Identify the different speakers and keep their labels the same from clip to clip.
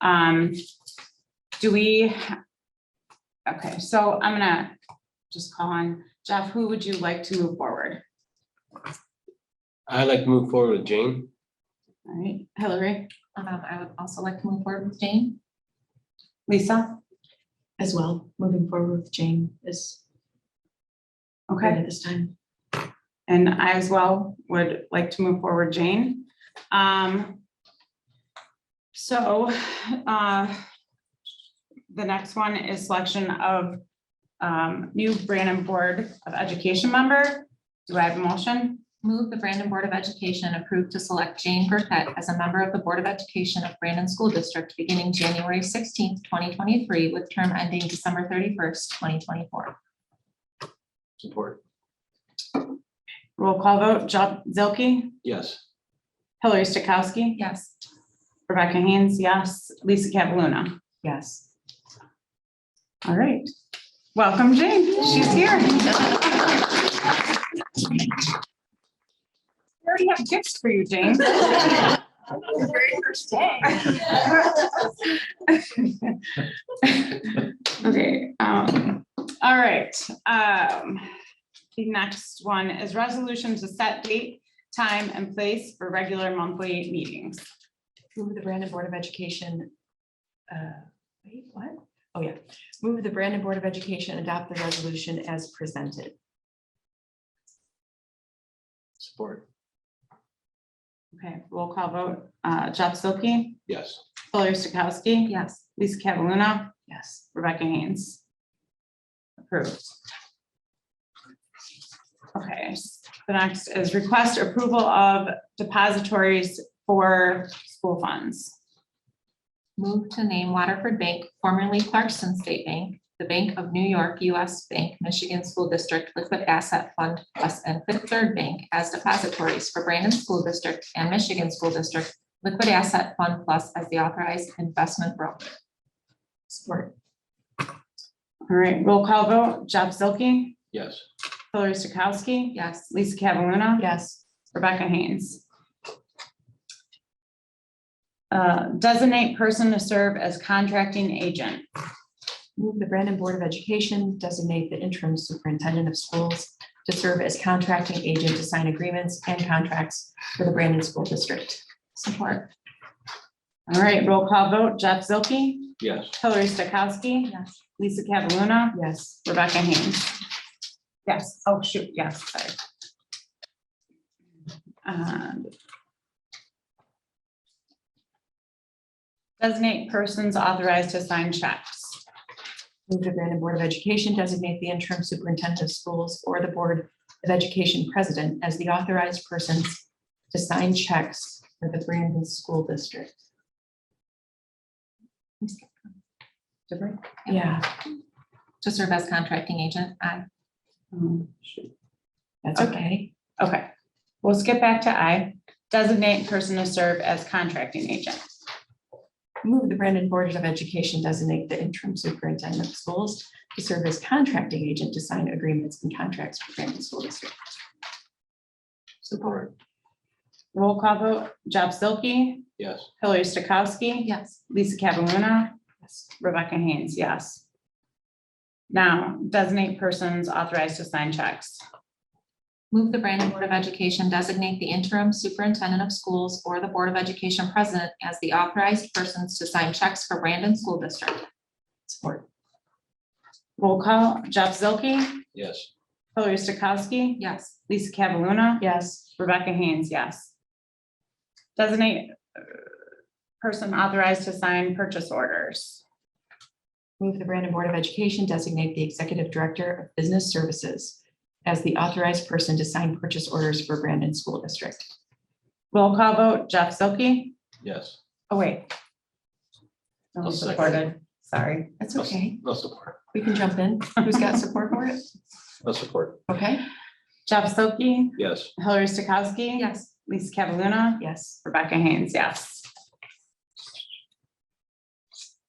Speaker 1: Um, do we? Okay, so I'm gonna just call on Jeff. Who would you like to move forward?
Speaker 2: I'd like to move forward with Jane.
Speaker 1: All right, Hillary,
Speaker 3: Um, I would also like to move forward with Jane
Speaker 1: Lisa,
Speaker 3: as well. Moving forward with Jane is good
Speaker 1: okay,
Speaker 3: at this time.
Speaker 1: and I as well would like to move forward Jane. Um. So, uh. The next one is selection of, um, new Brandon Board of Education member. Do I have a motion?
Speaker 3: Move the Brandon Board of Education approve to select Jane Burkett as a member of the Board of Education of Brandon School District beginning January sixteenth, twenty twenty-three, with term ending December thirty-first, twenty twenty-four.
Speaker 2: Support.
Speaker 1: Roll call vote, Jeff Zilke,
Speaker 2: Yes.
Speaker 1: Hillary Stokowski,
Speaker 3: Yes.
Speaker 1: Rebecca Haynes, yes, Lisa Cataluna.
Speaker 3: Yes.
Speaker 1: All right. Welcome, Jane. She's here. We already have gifts for you, Jane. Okay, um, all right, um, the next one is resolution to set date, time and place for regular monthly meetings.
Speaker 4: Move the Brandon Board of Education. uh, Wait, what? Oh, yeah. Move the Brandon Board of Education adopt the resolution as presented.
Speaker 2: Support.
Speaker 1: Okay, roll call vote, uh, Jeff Silky,
Speaker 2: Yes.
Speaker 1: Hillary Stokowski.
Speaker 3: Yes.
Speaker 1: Lisa Cataluna,
Speaker 4: Yes.
Speaker 1: Rebecca Haynes. Approved. Okay, s- the next is request approval of depositories for school funds.
Speaker 3: Move to name Waterford Bank, formerly Clarkson State Bank, the Bank of New York U.S. Bank, Michigan School District Liquid Asset Fund Plus and Fifth Third Bank as depositories for Brandon School District and Michigan School District Liquid Asset Fund Plus as the authorized investment broker.
Speaker 4: Support.
Speaker 1: All right, roll call vote, Jeff Zilke,
Speaker 2: Yes.
Speaker 1: Hillary Stokowski,
Speaker 3: Yes.
Speaker 1: Lisa Cataluna,
Speaker 4: Yes.
Speaker 1: Rebecca Haynes. Uh, Designate person to serve as contracting agent.
Speaker 4: Move the Brandon Board of Education designate the interim superintendent of schools to serve as contracting agent to sign agreements and contracts for the Brandon School District.
Speaker 3: Support.
Speaker 1: All right, roll call vote, Jeff Zilke,
Speaker 2: Yes.
Speaker 1: Hillary Stokowski,
Speaker 3: Yes.
Speaker 1: Lisa Cataluna,
Speaker 4: Yes.
Speaker 1: Rebecca Haynes. Yes, oh, shoot, yes, sorry. Um, Designate persons authorized to sign checks.
Speaker 4: Move the Brandon Board of Education designate the interim superintendent of schools or the Board of Education president as the authorized persons to sign checks for the Brandon School District.
Speaker 1: Different?
Speaker 4: Yeah.
Speaker 3: To serve as contracting agent. Aye.
Speaker 1: Um,
Speaker 4: That's
Speaker 1: Okay.
Speaker 4: okay.
Speaker 1: Okay, we'll skip back to I. Designate person to serve as contracting agent.
Speaker 4: Move the Brandon Board of Education designate the interim superintendent of schools to serve as contracting agent to sign agreements and contracts for Brandon School District.
Speaker 2: Support.
Speaker 1: Roll call vote, Jeff Zilke,
Speaker 2: Yes.
Speaker 1: Hillary Stokowski,
Speaker 3: Yes.
Speaker 1: Lisa Cataluna,
Speaker 4: Yes.
Speaker 1: Rebecca Haynes, yes. Now, designate persons authorized to sign checks.
Speaker 3: Move the Brandon Board of Education designate the interim superintendent of schools or the Board of Education president as the authorized persons to sign checks for Brandon School District.
Speaker 4: Support.
Speaker 1: Roll call, Jeff Zilke,
Speaker 2: Yes.
Speaker 1: Hillary Stokowski,
Speaker 3: Yes.
Speaker 1: Lisa Cataluna,
Speaker 4: Yes.
Speaker 1: Rebecca Haynes, yes. Designate uh, person authorized to sign purchase orders.
Speaker 4: Move the Brandon Board of Education designate the executive director of business services as the authorized person to sign purchase orders for Brandon School District.
Speaker 1: Roll call vote, Jeff Zilke,
Speaker 2: Yes.
Speaker 1: oh wait. No,
Speaker 2: I'll second.
Speaker 1: supported, sorry.
Speaker 4: That's okay.
Speaker 2: No support.
Speaker 4: We can jump in. Who's got support for it?
Speaker 2: No support.
Speaker 4: Okay.
Speaker 1: Jeff Zilke,
Speaker 2: Yes.
Speaker 1: Hillary Stokowski.
Speaker 3: Yes.
Speaker 1: Lisa Cataluna,
Speaker 4: Yes.
Speaker 1: Rebecca Haynes, yes.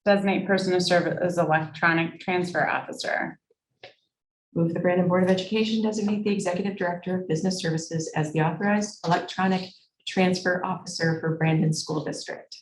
Speaker 1: Designate person to serve as electronic transfer officer.
Speaker 4: Move the Brandon Board of Education designate the Executive Director of Business Services as the authorized electronic transfer officer for Brandon School District.